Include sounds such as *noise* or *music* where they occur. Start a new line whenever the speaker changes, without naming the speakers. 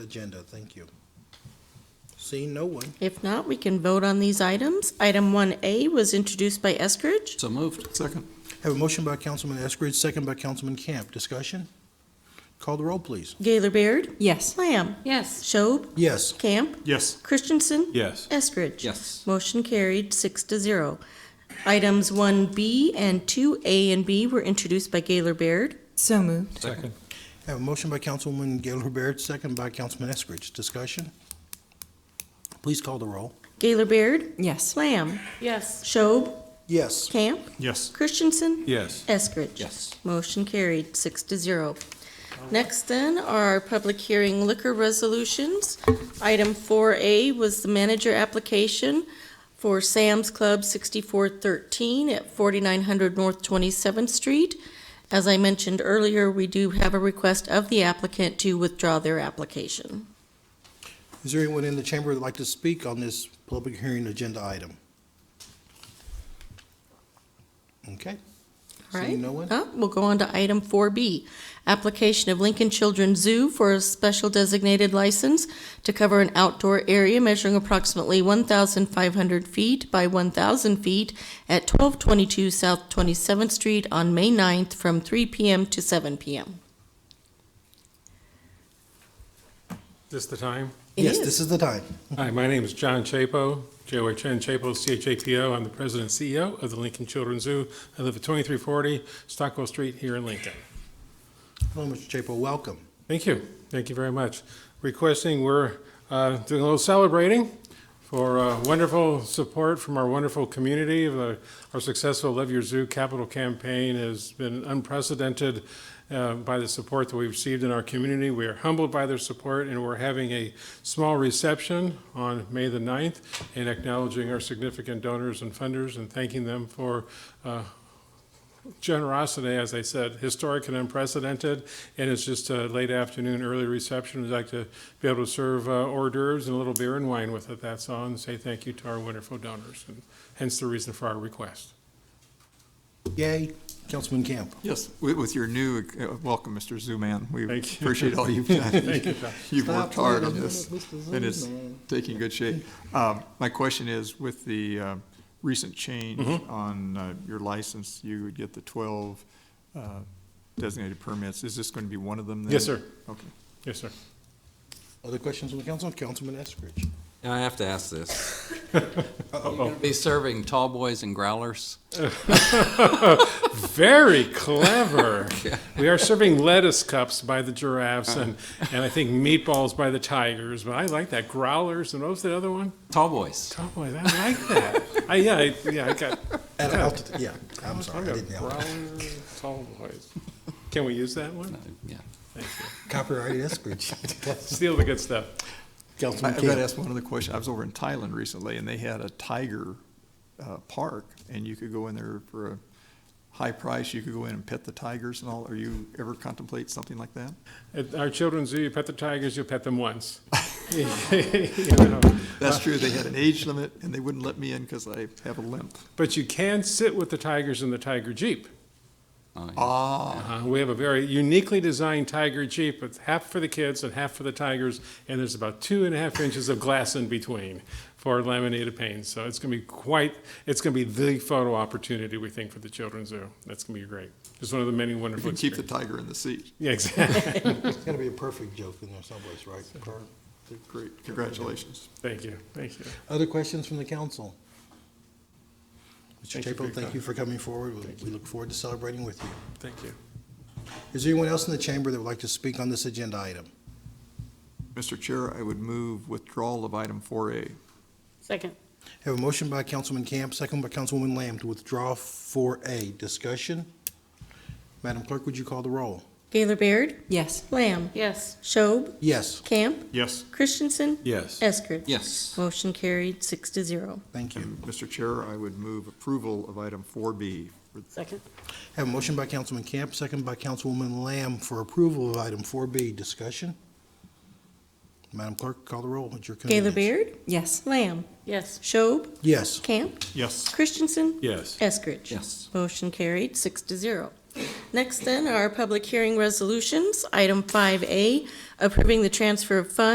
agenda, thank you. Seeing no one,
If not, we can vote on these items. Item 1A was introduced by Eskridge.
So moved. Second.
have a motion by Councilman Eskridge, second by Councilman Camp. Discussion? Call the roll, please.
Gaylor Baird?
Yes.
Lamb?
Yes.
Schob?
Yes.
Camp?
Yes.
Christensen?
Yes.
Eskridge?
Yes.
Motion carried, six to zero. Items 1B and 2A and B were introduced by Gaylor Baird.
So moved.
Second.
Have a motion by Councilwoman Gaylor Baird, second by Councilman Eskridge. Discussion? Please call the roll.
Gaylor Baird?
Yes.
Lamb?
Yes.
Schob?
Yes.
Camp?
Yes.
Christensen?
Yes.
Eskridge?
Yes.
Motion carried, six to zero. Next then are our public hearing liquor resolutions. Item 4A was the manager application for Sam's Club 6413 at 4900 North 27th Street. As I mentioned earlier, we do have a request of the applicant to withdraw their application.
Is there anyone in the chamber that'd like to speak on this public hearing agenda item? Okay.
All right.
Seeing no one?
Uh, We'll go on to item 4B, application of Lincoln Children's Zoo for a special designated license to cover an outdoor area measuring approximately 1,500 feet by 1,000 feet at 1222 South 27th Street on May 9th from 3 p.m. to 7 p.m.
This the time?
It
Yes, this is the time.
Hi, my name is John Chapo, J-O-H-N Chapo, C-H-A-P-O. I'm the president and CEO of the Lincoln Children's Zoo. I live at 2340 Stockwell Street here in Lincoln.
Hello, Mr. Chapo, welcome.
Thank you. Thank you very much. Requesting, we're uh, doing a little celebrating for uh, wonderful support from our wonderful community. The- Our successful Love Your Zoo capital campaign has been unprecedented uh, by the support that we've received in our community. We are humbled by their support, and we're having a small reception on May the 9th and acknowledging our significant donors and funders and thanking them for uh, generosity, as I said, historic and unprecedented, and it's just a late afternoon, early reception. We'd like to be able to serve uh, hors d'oeuvres and a little beer and wine with it, that's all, and say thank you to our wonderful donors, and hence the reason for our request.
Yay, Councilman Camp.
Yes.
With, with your new, uh, welcome, Mr. Zuman. We
Thank you.
appreciate
*laughs*
all you've done.
Thank you, John.
*laughs* You've worked hard on this, and it's taking good shape. Um, My question is, with the uh, recent change
Mm-hmm.
on uh, your license, you would get the 12 uh, designated permits. Is this going to be one of them then?
Yes, sir.
Okay.
Yes, sir.
Other questions from the council? Councilman Eskridge.
I have to ask this. *laughs* Are you gonna Be serving tall boys and growlers?
Very clever. We are serving lettuce cups by the giraffes, and, and I think meatballs by the tigers, but I like that, growlers, and what was the other one?
Tall boys.
Oh, boy, I like that. I, yeah, I- yeah, I got,
At altitude, yeah, I'm
I
sorry, I
got
didn't know.
growler, tall boys. Can we use that one?
Yeah.
Copyrighted *laughs* Eskridge.
Steal the good stuff.
I-
Councilman
I've got to
Camp.
ask one other question. I was over in Thailand recently, and they had a tiger uh, park, and you could go in there for a high price. You could go in and pet the tigers and all. Are you ever contemplate something like that?
At our children's zoo, you pet the tigers, you pet them once.
*laughs*
*laughs* You know,
That's true. They had an age limit, and they wouldn't let me in because I have a limp.
But you can sit with the tigers in the tiger jeep.
Ah,
Uh, we have a very uniquely designed tiger jeep with half for the kids and half for the tigers, and there's about two and a half inches of glass in between for laminated panes. So it's going to be quite, it's going to be the photo opportunity, we think, for the children's zoo. That's going to be great. It's one of the many
you
wonderful
can keep the
experiences.
tiger in the seat.
Yeah, exactly. *laughs*
It's gotta be a perfect joke in there someplace, right? Per-
Great, congratulations.
Thank you, thank you.
Other questions from the council? Mr.
Thank you for
Chapo,
your
thank
time.
you for coming forward. We- We look forward to celebrating with you.
Thank you.
Is there anyone else in the chamber that would like to speak on this agenda item?
Mr. Chair, I would move withdrawal of item 4A.
Second.
Have a motion by Councilman Camp, second by Councilwoman Lamb to withdraw 4A. Discussion? Madam Clerk, would you call the roll?
Gaylor Baird?
Yes.
Lamb?
Yes.
Schob?
Yes,
Camp?
Yes.
Christensen?
Yes.
Eskridge?
Yes.
Motion carried, six to zero.
thank you.
Mr. Chair, I would move approval of item 4B.
Second.
Have a motion by Councilman Camp, second by Councilwoman Lamb for approval of item 4B. Discussion? Madam Clerk, call the roll at your convenience.
Gaylor Baird?
Yes.
Lamb?
Yes.
Schob?
Yes.
Camp?
Yes.
Christensen?
Yes.
Eskridge?
Yes.
Motion carried, six to zero. Next then are public hearing resolutions. Item 5A, approving the transfer of funds